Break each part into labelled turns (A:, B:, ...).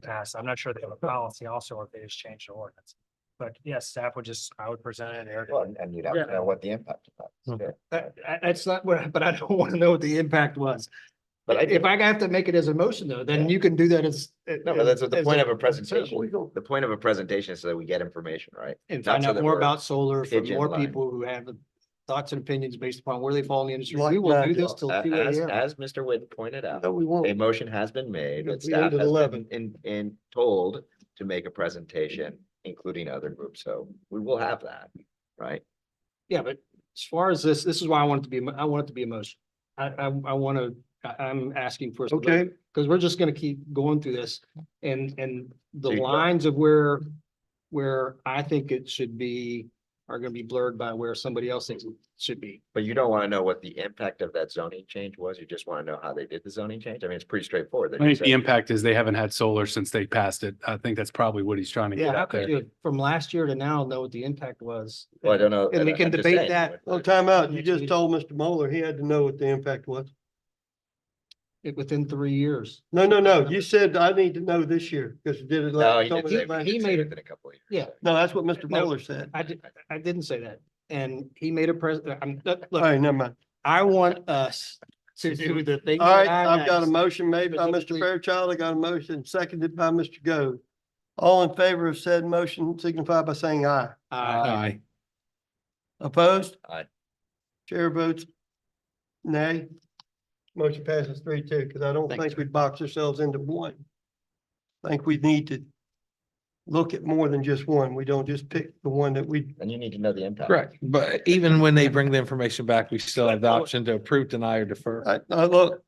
A: pass. I'm not sure they have a policy also, or if they just changed the ordinance. But yes, staff would just, I would present it there.
B: Well, and- and you'd have to
A: Yeah.
B: know what the impact of that is.
A: Okay.
B: yeah.
A: That, I- that's not what, I- but I don't want to know what the impact was.
B: But I-
A: If I have to make it as a motion though, then
B: Yeah.
A: you can do that as.
B: No, but that's what the
A: as
B: point of a
A: as a-
B: presentation. The point of a presentation is so that we get information, right?
A: And
B: Not
A: find
B: so
A: out
B: that
A: more
B: we're
A: about solar from more
B: pigeonlined.
A: people who have thoughts and opinions based upon where they fall in the industry.
C: Like
A: We will do
C: that,
A: this till
B: A-
A: two
B: As,
A: AM.
B: as Mr. Witten pointed out,
C: No, we
B: a
C: won't.
B: motion has been made
C: It'll
B: that
C: be
B: staff
C: ended
B: has
C: 11.
B: been in, in told to make a presentation, including other groups. So we will have that, right?
A: Yeah, but as far as this, this is why I want it to be, a mo- I want it to be a motion. I, I, I want to, I, I'm asking for. us to vote,
C: Okay,
A: Because we're just going to keep going through this and, and the
C: uh,
B: So you-
A: lines of where, where I think it should be are going to be blurred by where somebody else thinks it should be.
B: But you don't want to know what the impact of that zoning change was. You just want to know how they did the zoning change. I mean, it's pretty straightforward. They
D: I think
B: just
D: the
B: said-
D: impact is they haven't had solar since they passed it. I think that's probably what he's trying to
A: Yeah,
D: get
A: how
D: out
A: could
D: there.
A: you, from last year to now, know what the impact was?
B: Well, I don't know.
A: And we
B: I'm
A: can
B: just
A: debate
B: saying,
A: that.
B: but-
C: well, time out. You
A: Next
C: just
A: meeting.
C: told Mr. Moeller he had to know what the impact was.
A: It- Within three years.
C: No, no, no. You said I need to know this year because you did it
B: No,
C: last.
B: he did
C: told me
B: say,
C: it last-
B: he
A: made
B: made
A: it-
B: it in a couple of years.
A: Yeah.
C: No, that's what Mr.
A: No.
C: Moeller said.
A: I did, I didn't say that. And he made a pres, I'm,
C: All
A: look,
C: right, never mind.
A: I want us to do the thing.
C: All right,
A: that
C: I've got a
A: asked.
C: motion made by Mr.
A: Specifically-
C: Fairchild. I got a motion seconded by Mr. Goode. All in favor of said motion signify by saying aye.
A: Uh,
D: Aye.
C: Opposed?
B: Aye.
C: Chair votes nay. Motion passes three two, because I don't
A: Thanks,
C: think we box ourselves into one. I think we need to look at more than just one. We don't just pick the one that we,
B: And you need to know the impact.
E: Correct, but even when they bring the information back, we still have the option to approve, deny or defer.
C: I, I Uh, look,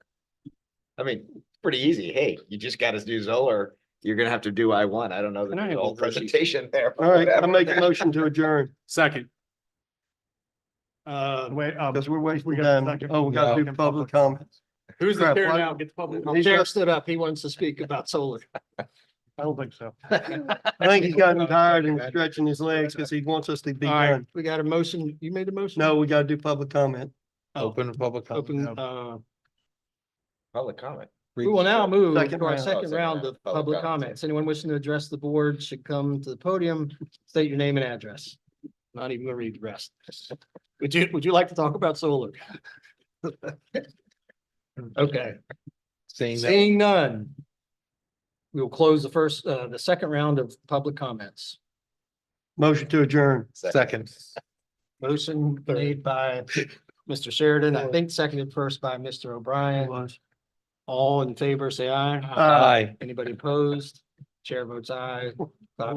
B: I mean, it's pretty easy. Hey, you just gotta do Zoller. You're gonna have to do I one. I don't know
A: And I
B: the
A: have
B: whole
A: a version.
B: presentation there.
C: all right, I
B: Whatever.
C: make a motion to adjourn,
D: Second.
A: uh,
F: Wait, um,
C: because we're wasting
F: We got a
C: time.
F: second.
C: Oh, we gotta do public comments.
D: Who's
C: Crap,
D: the chair
C: why-
D: now? Get the public.
A: Chair stood up. He wants to speak about solar.
F: I don't think so.
C: I think he's gotten tired and stretching his legs because he wants us to be
A: All right.
C: done.
A: We got a motion. You made a motion?
C: uh, No, we gotta do public comment.
E: Open to public comment.
A: Oh. Open,
F: no.
A: uh,
B: Public comment.
A: we will now move
C: Second
A: to our
C: round.
A: second
B: Oh,
A: round of public comments. Anyone wishing to address the board should come to the podium, state your name and address. Not even gonna read the rest. Would you, would you like to talk about solar? Okay.
E: Seeing that,
A: Seeing none. We will close the first, uh, the second round of public comments.
C: Motion to adjourn.
E: second.
A: Motion made by Mr. Sheridan, I think seconded first by Mr. O'Brien.
C: Was.
A: All in favor, say aye.
C: Aye.
E: Aye.
A: Anybody opposed? Chair votes aye. Five